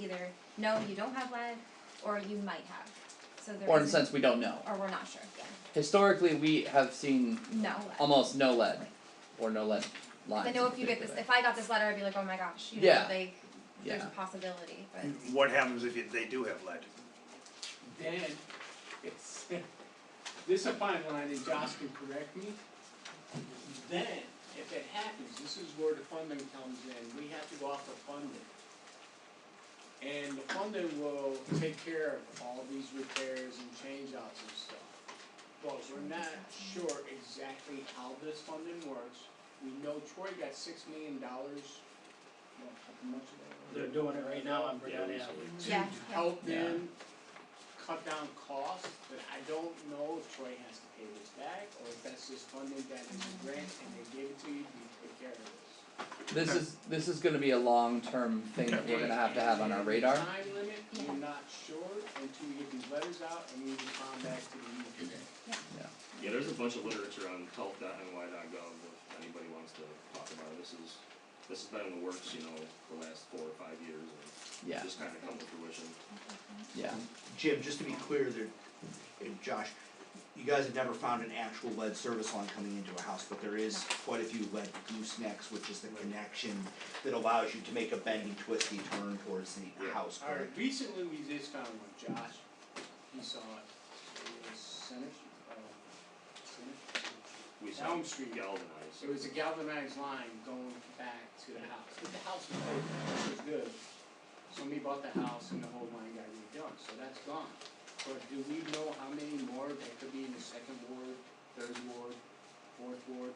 either no, you don't have lead, or you might have. So there Or in a isn't- sense, we don't know. or we're not sure. Yeah, Historically, we have seen no lead. almost no lead, or no lead lines. I know if you get this, if I got this letter, I'd be like, oh my gosh, you Yeah. know, like there's Yeah. a possibility, but What happens if you- they do have lead? then it's, this is a fine line, and Josh can correct me. Then, if it happens, this is where the funding comes in, we have to go off the funding. And the funding will take care of all these repairs and change outs and stuff. But we're not sure exactly how this funding works, we know Troy got six million dollars, you know, how much of that? They're doing it right now on Britannia. Yeah, to yeah. help Yeah. them cut down costs, but I don't know if Troy has to pay this back, or if that's just funding that is a grant and they gave it to you, you take care of this. This is this is going to be a long term thing that we're going to have to have on our radar. And the Time limit, Yeah. you're not sure until you get these letters out and you respond back to the E union. Yeah, there's a bunch of literature on health dot NY dot gov if anybody wants to talk about it. This is, this has been in the works, you know, for the last four or five years and Yeah, just kinda come to fruition. yeah. Jim, just to be clear, there, and Josh, you guys have never found an actual lead service line coming into a house, but there is quite a few lead goosenecks, which is the connection that allows you to make a bendy, twisty turn towards the house, Alright, correct? recently we just found one, Josh, he saw it, it was Senate, uh, Senate? We Elm sound Street. galvanized. It was a galvanized line going back to the house, but the house was good, it was good. Somebody bought the house and the whole line got redone, so that's gone. But do we know how many more that could be in the second ward, third ward, fourth ward?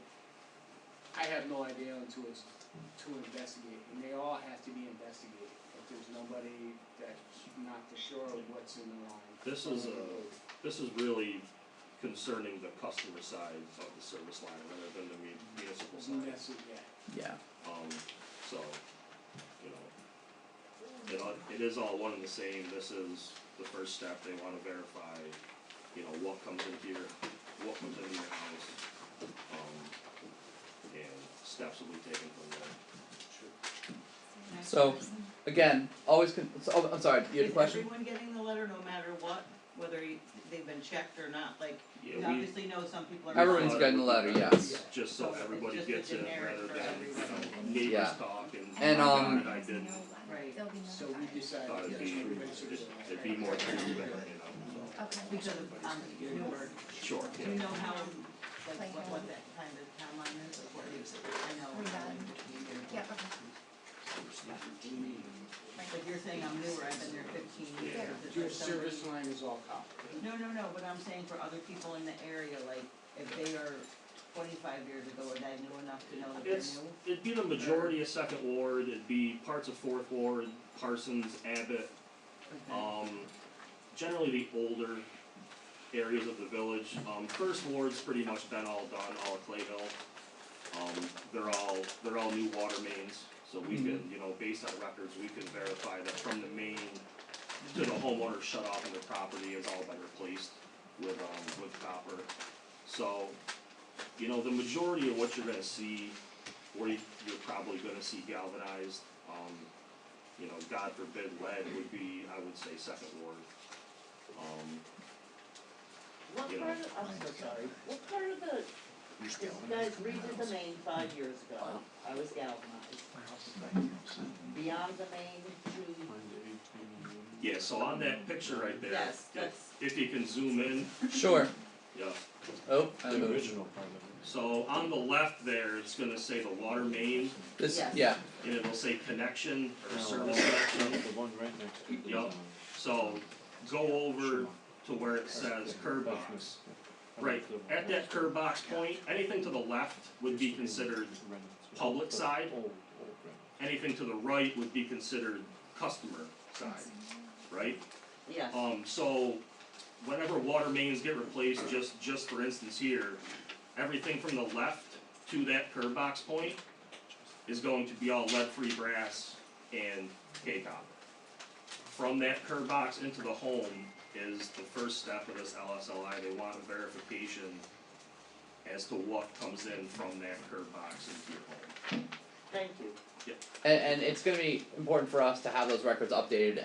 I have no idea until it's, to investigate, and they all have to be investigated. If there's nobody that's not for sure of what's in the line. This is a, this is really concerning the customer side of the service line rather than the mu- municipal side. That's it, yeah. Yeah. Um, so, you know, it all, it is all one and the same, this is the first step, they wanna verify, you know, what comes in here, what comes into your house. Um, and steps will be taken from there. So again, always. Con- so, oh, I'm sorry. You had a question. Is everyone getting the letter no matter what, whether you- they've been checked or not, like, you Yeah, we, obviously know some people are. not. Everyone's getting the letter. Yes. just so everybody It's just a gets it, generic rather for than, everyone. you know, Yeah. neighbors talk and. And, "Oh my um, God, I didn't, Right. There'll be So notified. we decided. thought it'd that's be, what we should it'd, do. it'd be more to you, but, you know, Okay. Because of, um, Newark, so, sure, do yeah. you know how, like, what, what that kind of timeline is, or what is it, I know, we're not in between here. Yeah, okay. But you're saying I'm newer, I've been there fifteen years, is Your there somebody- service line is all copper. No, no, no, but I'm saying for other people in the area, like, if they are twenty-five years ago, and I knew enough to know that they're It's, new, it'd be the majority of second ward, it'd be parts of fourth ward, Parsons, Abbott, um, generally the older areas of the village. Um, first ward's pretty much been all done, all of Clayville. Um, they're all, they're all new water mains, so we can, you know, based on records, we can verify that from the main to the homeowner shut off in the property has all been replaced with, um, with copper. So, you know, the majority of what you're gonna see, where you- you're probably gonna see galvanized, um, you know, God forbid lead would be, I would say, second ward. Um, What you know. part of, I'm so sorry, what part of the, this guy's redid the main five years ago, I was galvanized. Beyond the main to, yeah, so on that picture right there. Yes, if- that's- If you can zoom in, Sure. yeah, Oh, I moved. original part of it. so on the left there, it's gonna say the water main, This. Yes. Yeah. and it'll say connection or No, service that's connection. The one right next to it. Yup. So go over to where it says curb box. Right, at that curb box point, anything to the left would be considered public side. Old, old, anything to the right would be considered customer side, right? yes. Um, so whenever water mains get replaced, just, just for instance here, everything from the left to that curb box point is going to be all lead-free brass and K-copper. From that curb box into the home is the first step of this LSLI, they want a verification as to what comes in from that curb box into your home. Thank you. Yep. And, and it's gonna be important for us to have those records updated